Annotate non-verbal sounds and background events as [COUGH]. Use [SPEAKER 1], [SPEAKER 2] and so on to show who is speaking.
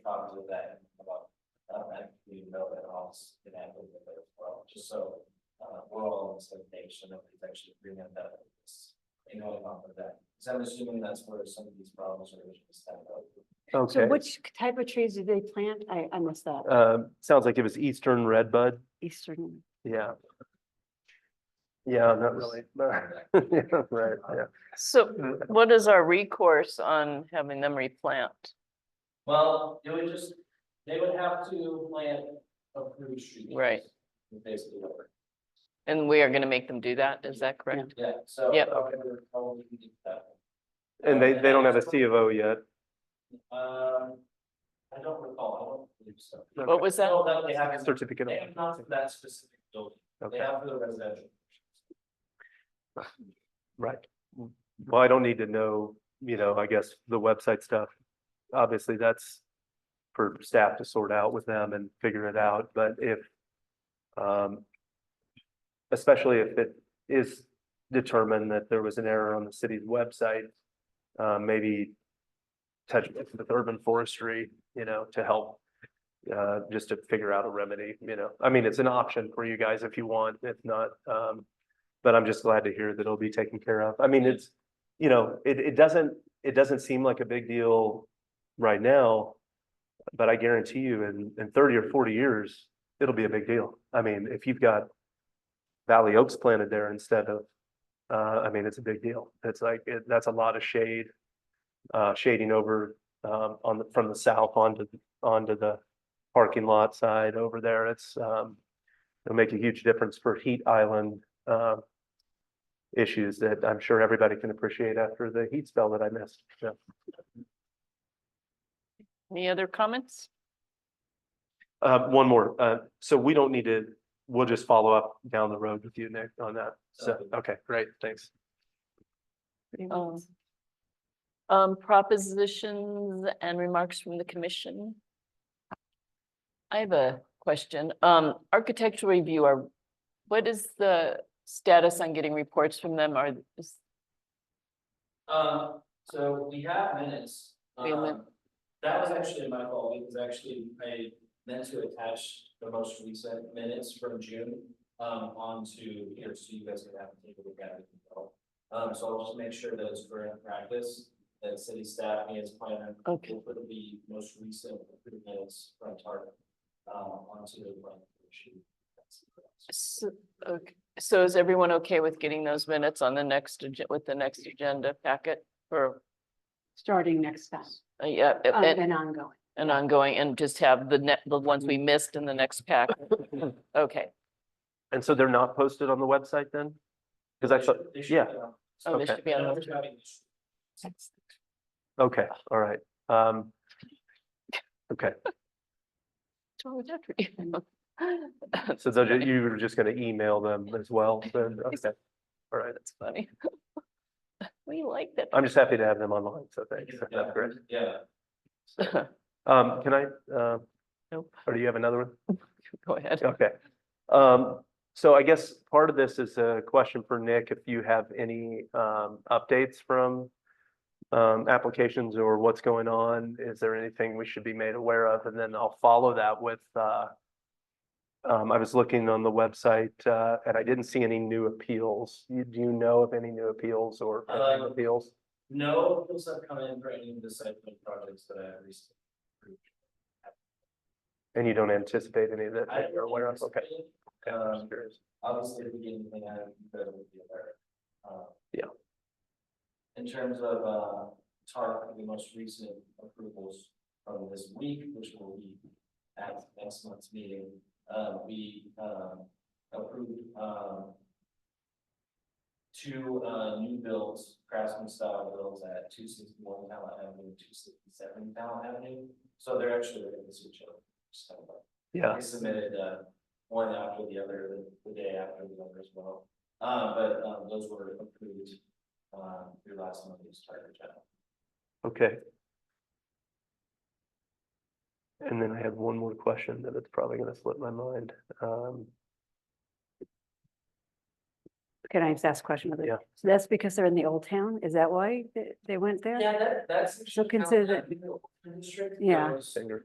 [SPEAKER 1] uh, information, nobody's actually bringing that up. It's, You know, about that, because I'm assuming that's where some of these problems are originally started.
[SPEAKER 2] So
[SPEAKER 3] Okay,
[SPEAKER 2] which type of trees do they plant? I, I missed that.
[SPEAKER 3] uh, sounds like it was Eastern Redbud,
[SPEAKER 2] Eastern,
[SPEAKER 3] yeah. Yeah, not really, [LAUGHS]
[SPEAKER 1] [LAUGHS]
[SPEAKER 3] Yeah, right, yeah.
[SPEAKER 4] So
[SPEAKER 3] Mm.
[SPEAKER 4] what is our recourse on having them replant?
[SPEAKER 1] Well, it would just, they would have to plant approved trees.
[SPEAKER 4] Right.
[SPEAKER 1] Basically, what we're-
[SPEAKER 4] And we are gonna make them do that, is that correct?
[SPEAKER 1] yeah, so.
[SPEAKER 4] Yep.
[SPEAKER 1] uh, we would probably need that.
[SPEAKER 3] And they, they don't have a C of O yet.
[SPEAKER 1] Um, I don't recall, I don't believe so.
[SPEAKER 4] What was that?
[SPEAKER 1] No, that Oh, they haven't,
[SPEAKER 3] Certificate.
[SPEAKER 1] they have not for
[SPEAKER 3] of-
[SPEAKER 1] that specific building, they
[SPEAKER 3] Okay,
[SPEAKER 1] have for the residential.
[SPEAKER 3] right. Well, I don't need to know, you know, I guess the website stuff. Obviously, that's for staff to sort out with them and figure it out, but if um, especially if it is determined that there was an error on the city's website, uh, maybe touch base with urban forestry, you know, to help uh, just to figure out a remedy, you know, I mean, it's an option for you guys if you want, if not, um, but I'm just glad to hear that it'll be taken care of. I mean, it's, you know, it, it doesn't, it doesn't seem like a big deal right now, but I guarantee you in, in thirty or forty years, it'll be a big deal. I mean, if you've got Valley Oaks planted there instead of, uh, I mean, it's a big deal. It's like, it, that's a lot of shade, uh, shading over, um, on the, from the south onto, onto the parking lot side over there. It's, um, it'll make a huge difference for heat island, uh, issues that I'm sure everybody can appreciate after the heat spell that I missed. So,
[SPEAKER 4] Any other comments?
[SPEAKER 3] Uh, one more, uh, so we don't need to, we'll just follow up down the road with you, Nick, on that. So, okay, great, thanks.
[SPEAKER 2] Oh,
[SPEAKER 4] Um, Um, propositions and remarks from the commission. I have a question. Um, architectural review are, what is the status on getting reports from them? Are, is-
[SPEAKER 1] Um, so we have minutes.
[SPEAKER 4] We have min-
[SPEAKER 1] Um, That was actually my fault, because actually I meant to attach the most recent minutes from June, um, onto here, so you guys can have a table look at it. as well. Um, so I'll just make sure that it's current practice, that city staff and its planner
[SPEAKER 4] okay,
[SPEAKER 1] will put the most recent approved minutes from target, um, onto the plan. sheet.
[SPEAKER 4] so, okay, so is everyone okay with getting those minutes on the next, agen- with the next agenda packet? Or,
[SPEAKER 2] starting next time,
[SPEAKER 4] uh, yeah,
[SPEAKER 2] um,
[SPEAKER 4] and-
[SPEAKER 2] and ongoing.
[SPEAKER 4] and ongoing and just have the net, the ones we missed in the next pack. Okay.
[SPEAKER 3] And so they're not posted on the website then? Because I thought,
[SPEAKER 1] They should-
[SPEAKER 3] yeah,
[SPEAKER 1] they should, uh,
[SPEAKER 4] Oh, they
[SPEAKER 3] Okay.
[SPEAKER 4] should be on.
[SPEAKER 1] no,
[SPEAKER 4] the-
[SPEAKER 1] they're having issues.
[SPEAKER 3] okay, all right. Um, okay,
[SPEAKER 4] Oh, definitely.
[SPEAKER 3] so they'll ju- you were just going to email them as well, then, [LAUGHS] okay, all right.
[SPEAKER 4] That's funny. [LAUGHS] We like that.
[SPEAKER 3] I'm just happy to have them online, so thanks. That's great.
[SPEAKER 1] Yeah.
[SPEAKER 3] Um, can I, uh,
[SPEAKER 4] Nope.
[SPEAKER 3] or do you have another one?
[SPEAKER 4] Go ahead.
[SPEAKER 3] Okay. Um, so I guess part of this is a question for Nick, if you have any, um, updates from um, applications or what's going on? Is there anything we should be made aware of? And then I'll follow that with, uh, um, I was looking on the website, uh, and I didn't see any new appeals. You- Do you know of any new appeals or pending
[SPEAKER 1] Uh,
[SPEAKER 3] appeals?
[SPEAKER 1] No, those have come in for any of the site plan projects that I have recently. approved.
[SPEAKER 3] And you don't anticipate any that
[SPEAKER 1] I
[SPEAKER 3] you're aware of? Okay.
[SPEAKER 1] anticipate,
[SPEAKER 3] Okay, I'm just
[SPEAKER 1] um,
[SPEAKER 3] curious.
[SPEAKER 1] Obviously, if we get anything out of it, that would be aware. of. Um,
[SPEAKER 3] Yeah.
[SPEAKER 1] In terms of, uh, TARP, the most recent approvals from this week, which will be at next month's meeting, uh, we, um, approved, um, two, uh, new builds, craftsman style builds at two sixty-one Talent Avenue, two sixty-seven Talent Avenue. So they're actually going to switch over. so.
[SPEAKER 3] Yeah.
[SPEAKER 1] I submitted uh one after the other, the- the day after the other as well. Uh but um those were approved um through last month's charter channel.
[SPEAKER 3] Okay. And then I have one more question that it's probably gonna slip my mind. Um,
[SPEAKER 2] [LAUGHS] Can I just ask a question?
[SPEAKER 3] Yeah.
[SPEAKER 2] So that's because they're in the old town? Is that why they, they went there?
[SPEAKER 1] Yeah, that that's.
[SPEAKER 2] So consider that-
[SPEAKER 1] District.
[SPEAKER 2] Yeah.
[SPEAKER 1] those-
[SPEAKER 3] Singer.